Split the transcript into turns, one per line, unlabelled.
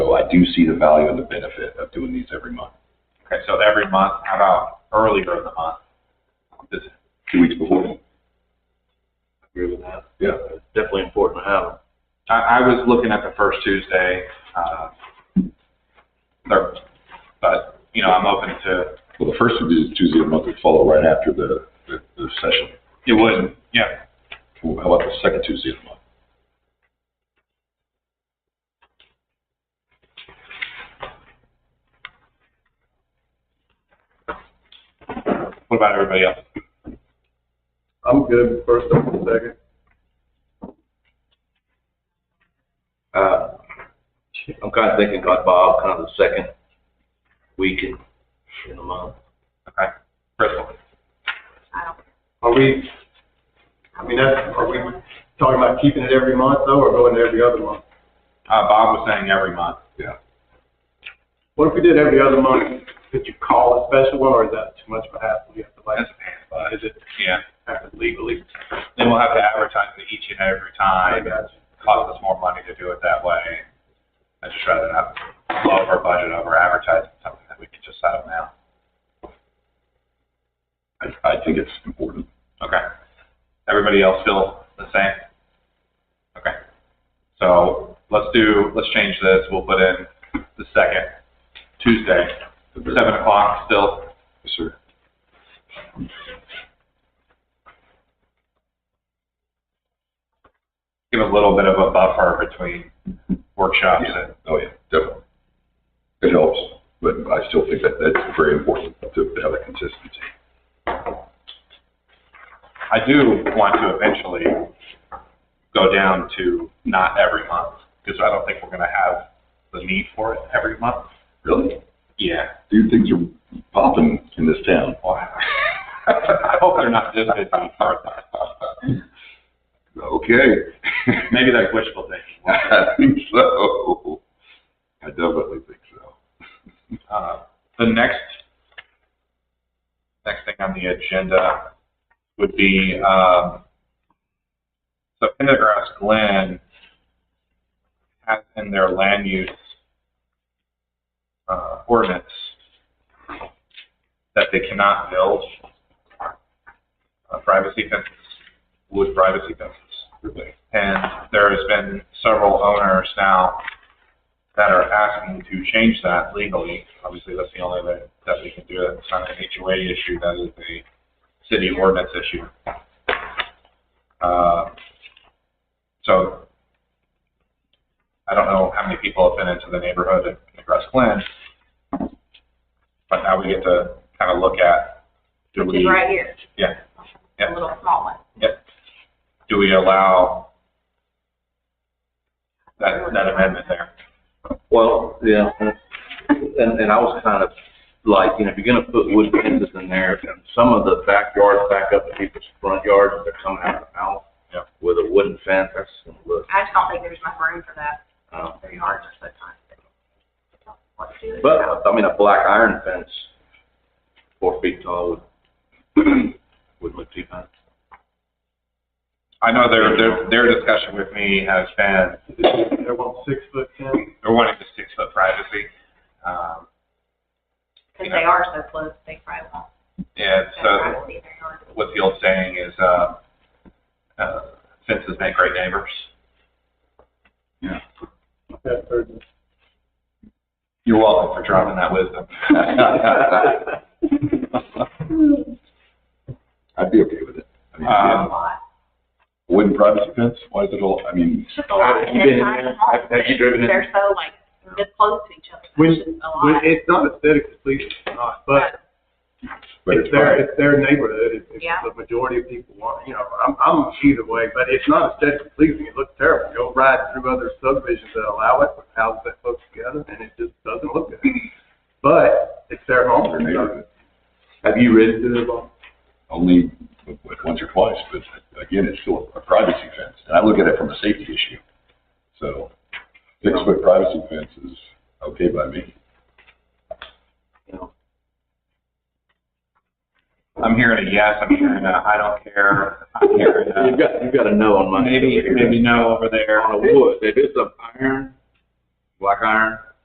I do see the value and the benefit of doing these every month,
Okay, so every month, how about earlier in the month? Just
two weeks before.
agree with that.
Yeah.
It's Definitely important to have them.
I, I was looking at the first Tuesday, uh, there- but, you know, I'm open to,
Well, the first would be Tuesday of the month would follow right after the, the, the session.
it would, yeah,
How about the second Tuesday of the month?
what about everybody else?
I'm good, first and second.
Uh, I'm kind of thinking about Bob, kind of the second week in, in the month.
Okay, Crystal,
Are we, I mean, that's, are we talking about keeping it every month though, or going to every other month?
uh, Bob was saying every month.
Yeah.
What if we did every other month? Could you call a special one, or is that too much of a hassle? You have to like,
That's a pain in the butt.
is it?
Yeah, legally. Then we'll have to advertise it each and every
I
time.
got you.
Cost us more money to do it that way. I'd just rather not blow up our budget over advertising something that we can just settle now.
I, I think it's important.
Okay. Everybody else feel the same? Okay. So let's do, let's change this. We'll put in the second Tuesday, seven o'clock still.
Yes, sir.
Give a little bit of a buffer between workshops and,
Oh, yeah, definitely. It helps, but I still think that that's very important to to have that consistency.
I do want to eventually go down to not every month because I don't think we're going to have the need for it every month.
Really?
Yeah.
Dude, things are popping in this town.
Well, I hope they're not just busy for it.
Okay.
Maybe that's wishful thinking.
I think so. I definitely think so.
Uh, The next, next thing on the agenda would be, um, so Pendergrass Glen has in their land use uh, ordinance that they cannot build uh, privacy fences, wood privacy fences. And there has been several owners now that are asking to change that legally. Obviously, that's the only way that we can do it. It's not an HOA issue, that is a city ordinance issue. Uh, So, I don't know how many people have been into the neighborhood in Nebraska Glen, but now we get to kind of look at, do
Which is
we,
right here.
Yeah. Yeah.
A little small one.
do we allow that, that amendment there?
Well, yeah, and, and I was kind of like, you know, if you're gonna put wood fences in there, and some of the backyards back up to people's front yards, they're coming out of the house.
Yeah.
With a wooden fence, that's gonna look,
I just don't think there's enough room for that.
um,
Very hard to put on. Let's do it.
but, I mean, a black iron fence, four feet tall would, wouldn't look too bad.
I know their, their, their discussion with me has been,
They want six foot ten,
they're wanting to six foot privacy. Um,
Cause they are so close, they probably won't.
and
have
so
privacy in their yard.
what the old saying is, uh, uh, fences make great neighbors.
that third.
You're welcome for dropping that wisdom.
I'd be okay with it. I mean,
Uh,
um,
A lot.
Wooden privacy fence, why is it all, I mean,
It's just a lot.
Have you
They're
been in
kind
there?
of small.
Have- have you driven in?
They're so like, this close to each other.
When-
It's just a
Well,
lot.
It's not aesthetically pleasing, it's not, but
but
it's
it's
their,
private.
it's their neighborhood, it's, it's
Yeah.
the majority of people want, you know, I'm, I'm either way, but it's not aesthetically pleasing, it looks terrible. You'll ride through other subdivisions that allow it, with houses that close together, and it just doesn't look good. But it's their home,
Their
it's
neighborhood.
not- have you ridden through them?
only once or twice, but again, it's still a privacy fence. And I look at it from a safety issue. So six foot privacy fence is okay by me.
I'm hearing a yes, I'm hearing a I don't care, I'm hearing
You've
a
got, you've got to know on my.
maybe, maybe no over there.
On a wood, if it's a iron, black iron,